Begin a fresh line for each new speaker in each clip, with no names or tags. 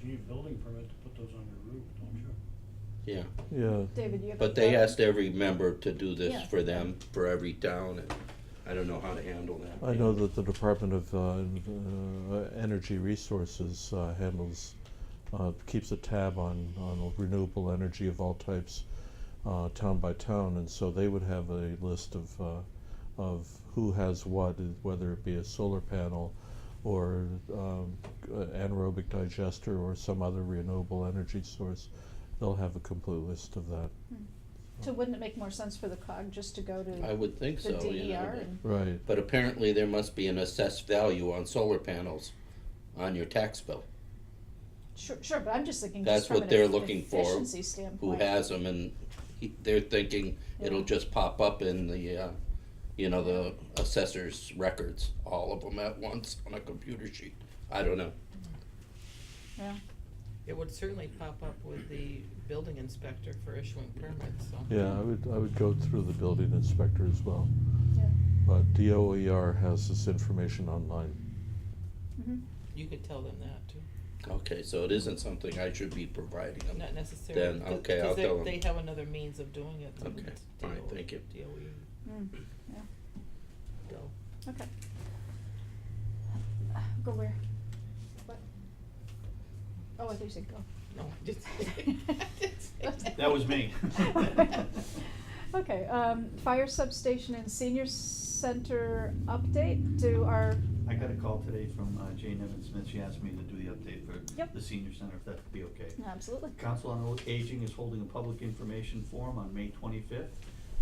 you need a building permit to put those on your roof, don't you?
yeah.
yeah.
David, you have.
But they asked every member to do this
Yeah.
for them, for every town, and I don't know how to handle that.
I know that the Department of uh, Env- uh, Energy Resources uh, handles, uh, keeps a tab on, on renewable energy of all types, uh, town by town, and so they would have a list of, uh, of who has what, and whether it be a solar panel or um, g- uh, anaerobic digester or some other renewable energy source. They'll have a complete list of that.
So wouldn't it make more sense for the cog just to go
I
to
would think
the
so, you know.
DER
but-
and,
Right.
But apparently there must be an assessed value on solar panels on your tax bill.
sure, sure, but I'm just thinking
That's
just from
what
an
they're
eff-
looking for,
efficiency
who
standpoint.
has them, and he- they're thinking it'll
Yeah.
just pop up in the, uh, you know, the assessor's records, all of them at once on a computer sheet. I don't know.
Yeah,
It would certainly pop up with the building inspector for issuing permits, so.
Yeah, I would, I would go through the building inspector as well.
yeah,
But DOER E has this information online.
mhm.
You could tell them that too,
Okay, so it isn't something I should be providing them.
not
Then,
necessarily. because-
okay, I'll
because they-
tell 'em.
They have another means of doing it. than
Okay,
it's
all right,
DOE
thank you.
DOE,
Mm, yeah,
DOE.
okay. Go where? What? Oh, I think you said go.
No, I didn't
That was me.
Okay, um, fire substation and senior center update, do our,
I got a call today from uh, Jane Evans Smith, she asked me to do the update for
Yep.
the senior center, if that'd be okay.
absolutely.
Council on Aging is holding a public information forum on May twenty-fifth.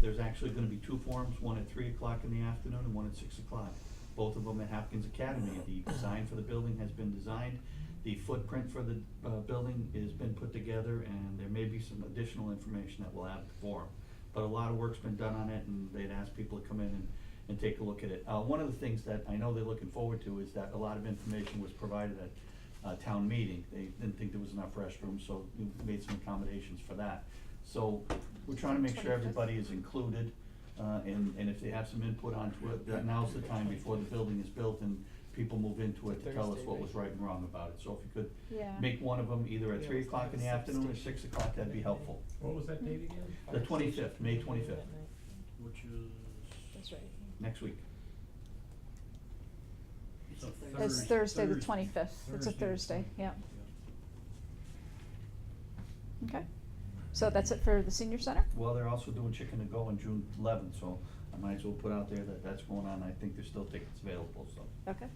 There's actually gonna be two forums, one at three o'clock in the afternoon and one at six o'clock. Both of them at Hopkins Academy. The design for the building has been designed. The footprint for the, uh, building has been put together and there may be some additional information that we'll add to the forum. But a lot of work's been done on it and they'd asked people to come in and, and take a look at it. Uh, one of the things that I know they're looking forward to is that a lot of information was provided at uh, town meeting. They didn't think there was enough restrooms, so we made some accommodations for that. So we're trying to make sure
25th.
everybody is included, uh, and, and if they have some input onto it, that now's the time before the building is built and people move into it to tell us
Thursday,
what was
right?
right and wrong about it. So if you
Yeah.
could make one of them either at
Yeah,
three
let's
o'clock in the
have
afternoon or
6:00.
six o'clock, that'd be helpful.
What was that date again?
The twenty-fifth, May twenty-fifth,
Which is.
That's right.
next week.
It's a
It's
Thurs-
Thursday, the
Thurs-
twenty-fifth, it's a Thursday, yeah,
Yeah.
okay. So that's it for the senior center?
Well, they're also doing chicken to go on June eleventh, so I might as well put out there that that's going on. I think there's still tickets available, so.
Okay.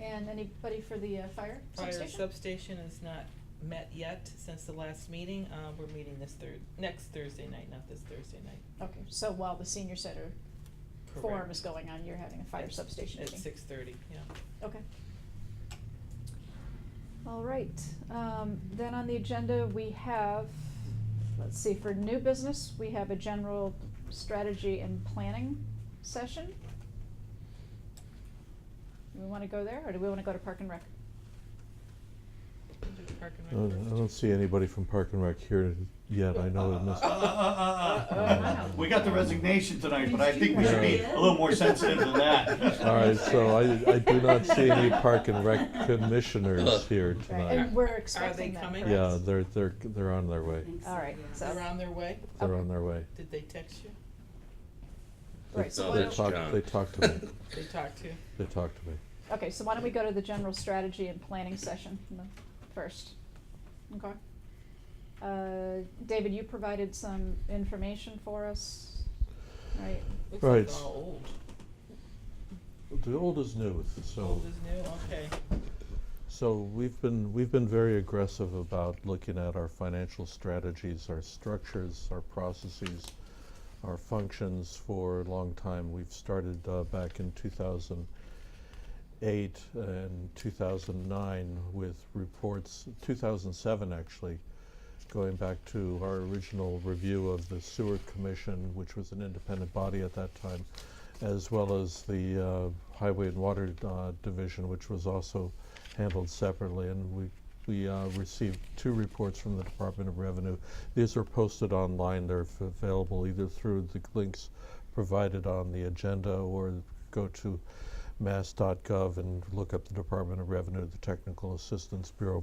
And anybody for the uh, fire
Fire
substation?
substation is not met yet since the last meeting, uh, we're meeting this Thurs- next Thursday night, not this Thursday night.
Okay, so while the senior center forum
Correct.
is going on, you're having a fire substation
At
meeting?
six thirty, yeah.
Okay. All right, um, then on the agenda, we have, let's see, for new business, we have a general strategy and planning session. Do we wanna go there, or do we wanna go to Park and Rec?
Do Park and
I
Rec
don't I
first.
don't see anybody from Park and Rec here yet, I know in this.
Uh, uh, uh, uh, uh.
Uh-oh.
We got the resignation tonight, but I think we should be a little more sensitive than that.
All right, so I, I do not see any Park and Rec commissioners here
Right,
tonight.
and we're expecting
they
that,
coming?
Uh, Yeah, they're, they're, they're on their way,
All right, so,
They're on their way,
they're on their way.
did they text you?
right, so
No,
why
They
that's
don't,
talk-
John.
they talk to me.
They talked to you?
They talked to me.
okay, so why don't we go to the general strategy and planning session m- first? Okay. Uh, David, you provided some information for us, right?
Looks
Right.
like they're all old.
The old is new, so.
Old is new, okay.
So we've been, we've been very aggressive about looking at our financial strategies, our structures, our processes, our functions for a long time. We've started uh, back in 2008 and 2009 with reports, 2007 actually, going back to our original review of the Sewer Commission, which was an independent body at that time, as well as the uh, Highway and Water uh, Division, which was also handled separately. And we, we uh, received two reports from the Department of Revenue. These are posted online. They're f- available either through the links provided on the agenda or go to mass.gov and look up the Department of Revenue, the Technical Assistance Bureau